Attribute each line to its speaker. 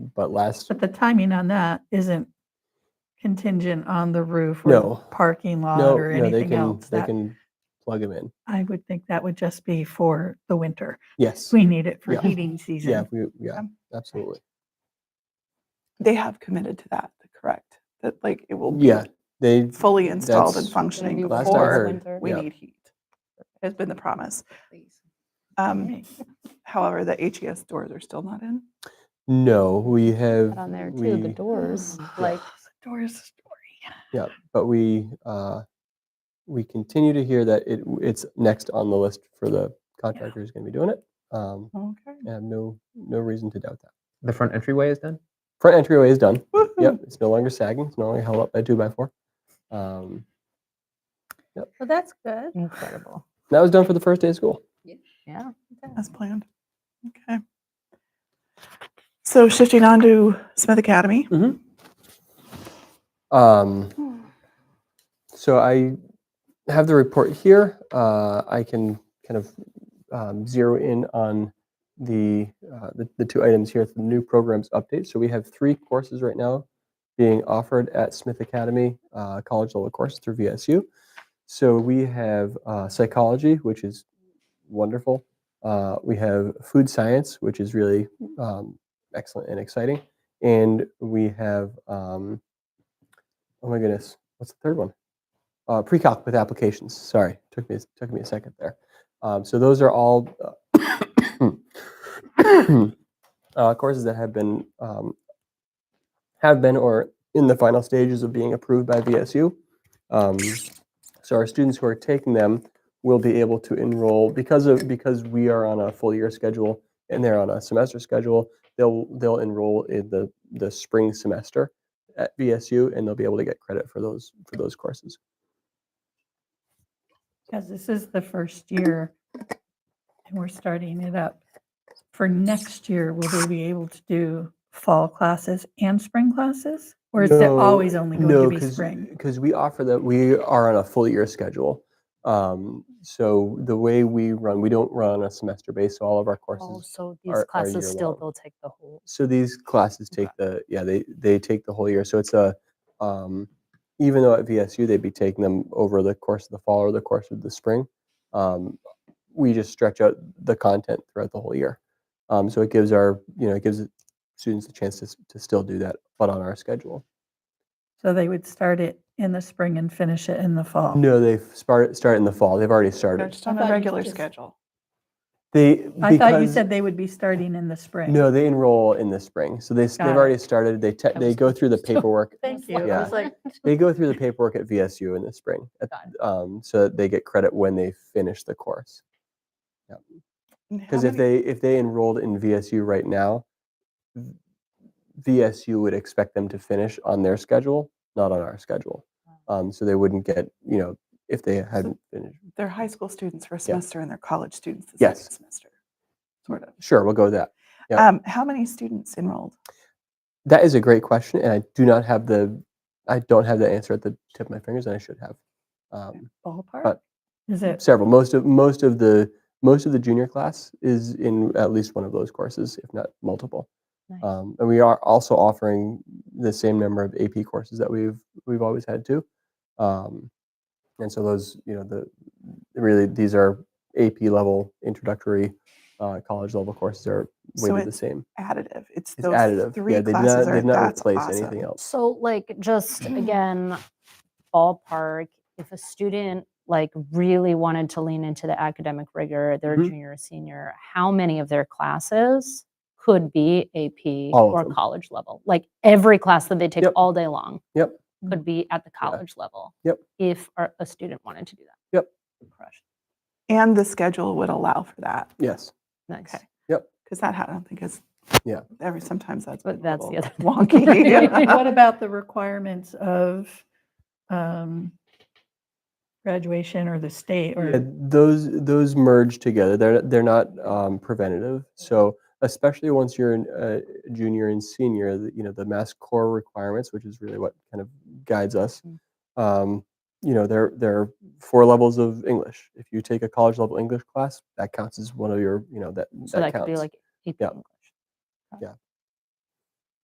Speaker 1: but last,
Speaker 2: But the timing on that isn't contingent on the roof
Speaker 1: No.
Speaker 2: or parking lot
Speaker 1: no,
Speaker 2: or
Speaker 1: no, they
Speaker 2: anything
Speaker 1: can,
Speaker 2: else.
Speaker 1: they
Speaker 2: That-
Speaker 1: can plug them in.
Speaker 2: I would think that would just be for the winter.
Speaker 1: Yes.
Speaker 2: We need it for
Speaker 1: Yeah.
Speaker 2: heating
Speaker 1: Yeah,
Speaker 2: season.
Speaker 1: we, yeah,
Speaker 3: Okay.
Speaker 1: absolutely.
Speaker 3: They have committed to that, correct? That like it will be
Speaker 1: Yeah, they,
Speaker 3: fully installed and
Speaker 1: That's-
Speaker 3: functioning
Speaker 1: last I
Speaker 3: before
Speaker 1: heard,
Speaker 3: we
Speaker 1: yeah.
Speaker 3: need heat. Has been the promise. Um, however, the HES doors are still not in.
Speaker 1: no, we have.
Speaker 4: Put on there too, the
Speaker 1: we-
Speaker 4: doors,
Speaker 3: Oh,
Speaker 4: like,
Speaker 3: Doors story.
Speaker 1: Yeah, but we, uh, we continue to hear that it, it's next on the list for the contractor who's going to be doing it. Um,
Speaker 3: Okay.
Speaker 1: I have no, no reason to doubt that.
Speaker 5: The front entryway is done?
Speaker 1: Front entryway is done.
Speaker 3: Woohoo.
Speaker 1: Yep, it's no longer sagging. It's no longer held up by two by four. Um,
Speaker 6: Well, that's good.
Speaker 4: incredible.
Speaker 1: that was done for the first day of school.
Speaker 4: Yeah.
Speaker 3: As planned. Okay. So shifting on to Smith Academy.
Speaker 1: Um, so I have the report here. Uh, I can kind of um, zero in on the, uh, the the two items here, the new programs update. So we have three courses right now being offered at Smith Academy uh, college level courses through VSU. So we have uh, psychology, which is wonderful. Uh, we have food science, which is really um, excellent and exciting, and we have um, oh my goodness, what's the third one? uh, pre-calc with applications. Sorry, took me took me a second there. Um, so those are all uh, uh, courses that have been um, have been or in the final stages of being approved by VSU. Um, so our students who are taking them will be able to enroll because of because we are on a full year schedule and they're on a semester schedule. They'll they'll enroll in the the spring semester at VSU and they'll be able to get credit for those for those courses.
Speaker 2: Because this is the first year and we're starting it up. For next year, will they be able to do fall classes and spring classes? Or is it
Speaker 1: No,
Speaker 2: always only going to be spring?
Speaker 1: Because we offer that, we are on a full year schedule. Um, so the way we run, we don't run on a semester base, so all of our
Speaker 4: Oh,
Speaker 1: courses.
Speaker 4: so
Speaker 1: are-
Speaker 4: these
Speaker 1: are
Speaker 4: classes still,
Speaker 1: year-long.
Speaker 4: they'll take the whole,
Speaker 1: So these classes take the, yeah, they, they take the whole year. So it's a, um, even though at VSU, they'd be taking them over the course of the fall or the course of the spring. Um, we just stretch out the content throughout the whole year. Um, so it gives our, you know, it gives students a chance to, s- to still do that, but on our schedule.
Speaker 2: So they would start it in the spring and finish it in the fall?
Speaker 1: No, they start start in the fall. They've already
Speaker 3: They're
Speaker 1: started.
Speaker 3: just on
Speaker 2: thought
Speaker 3: a
Speaker 2: you
Speaker 3: regular
Speaker 2: just-
Speaker 3: schedule.
Speaker 1: They
Speaker 2: I thought you
Speaker 1: because-
Speaker 2: said they would be starting in the spring.
Speaker 1: no. They enroll in the spring, so they s- they've
Speaker 2: Got it.
Speaker 1: already started. They te-
Speaker 4: I
Speaker 1: they
Speaker 4: was
Speaker 1: go through the
Speaker 4: confused.
Speaker 1: paperwork.
Speaker 2: Thank you.
Speaker 4: Yeah.
Speaker 2: I was like,
Speaker 1: they go through the paperwork at VSU in the spring, at-
Speaker 4: Got
Speaker 1: um, so that they get credit when they finish the course.
Speaker 3: And how
Speaker 1: Because if
Speaker 3: many-
Speaker 1: they if they enrolled in VSU right now, v- VSU would expect them to finish on their schedule, not on our schedule. Um, so they wouldn't get you know if they hadn't finished.
Speaker 3: They're high school students for a semester and they're college students the
Speaker 1: Yes.
Speaker 3: second semester. Sort of.
Speaker 1: Sure, we'll go with that. Yeah.
Speaker 3: Um, how many students enrolled?
Speaker 1: That is a great question, and I do not have the, I don't have the answer at the tip of my fingers, and I should have. Um,
Speaker 3: Ballpark?
Speaker 2: Is it,
Speaker 1: several, most of most of the most of the junior class is in at least one of those courses, if not multiple.
Speaker 4: Nice.
Speaker 1: Um, and we are also offering the same number of AP courses that we've we've always had too. Um, and so those, you know, the really these are AP level introductory uh, college level courses are
Speaker 3: So
Speaker 1: weighted the
Speaker 3: it's
Speaker 1: same.
Speaker 3: additive. It's
Speaker 1: It's
Speaker 3: those
Speaker 1: additive.
Speaker 3: three
Speaker 1: yeah, they did
Speaker 3: classes
Speaker 1: not,
Speaker 3: are
Speaker 1: they did not
Speaker 3: that's
Speaker 1: replace
Speaker 3: awesome.
Speaker 1: anything else.
Speaker 4: so like, just again, ballpark, if a student like really wanted to lean into the academic rigor, their
Speaker 1: Mhm.
Speaker 4: junior or senior, how many of their classes could be AP
Speaker 1: All of
Speaker 4: or
Speaker 1: them.
Speaker 4: college level? Like every class that they take
Speaker 1: Yep.
Speaker 4: all day long?
Speaker 1: Yep.
Speaker 4: Could be at the college level?
Speaker 1: Yep.
Speaker 4: If our- a student wanted to do that?
Speaker 3: And the schedule would allow for that.
Speaker 1: Yes.
Speaker 4: Nice.
Speaker 3: Okay.
Speaker 1: Yep.
Speaker 3: Because that ha- I don't think is.
Speaker 1: Yeah.
Speaker 3: Every sometimes that's. been
Speaker 4: But
Speaker 3: a
Speaker 4: that's the
Speaker 3: little
Speaker 4: other thing.
Speaker 2: what
Speaker 3: Wonky.
Speaker 2: about the requirements of um, graduation or the state
Speaker 1: Yeah,
Speaker 2: or?
Speaker 1: those those merge together. They're they're not um, preventative. So especially once you're in, uh, junior and senior, the, you know the mass core requirements, which is really what kind of guides us.
Speaker 4: Mm.
Speaker 1: Um, you know there there are four levels of English. If you take a college level English class, that counts as one of your you know that
Speaker 4: So that could
Speaker 1: counts.
Speaker 4: be like AP
Speaker 1: Yeah.
Speaker 4: English.
Speaker 1: yeah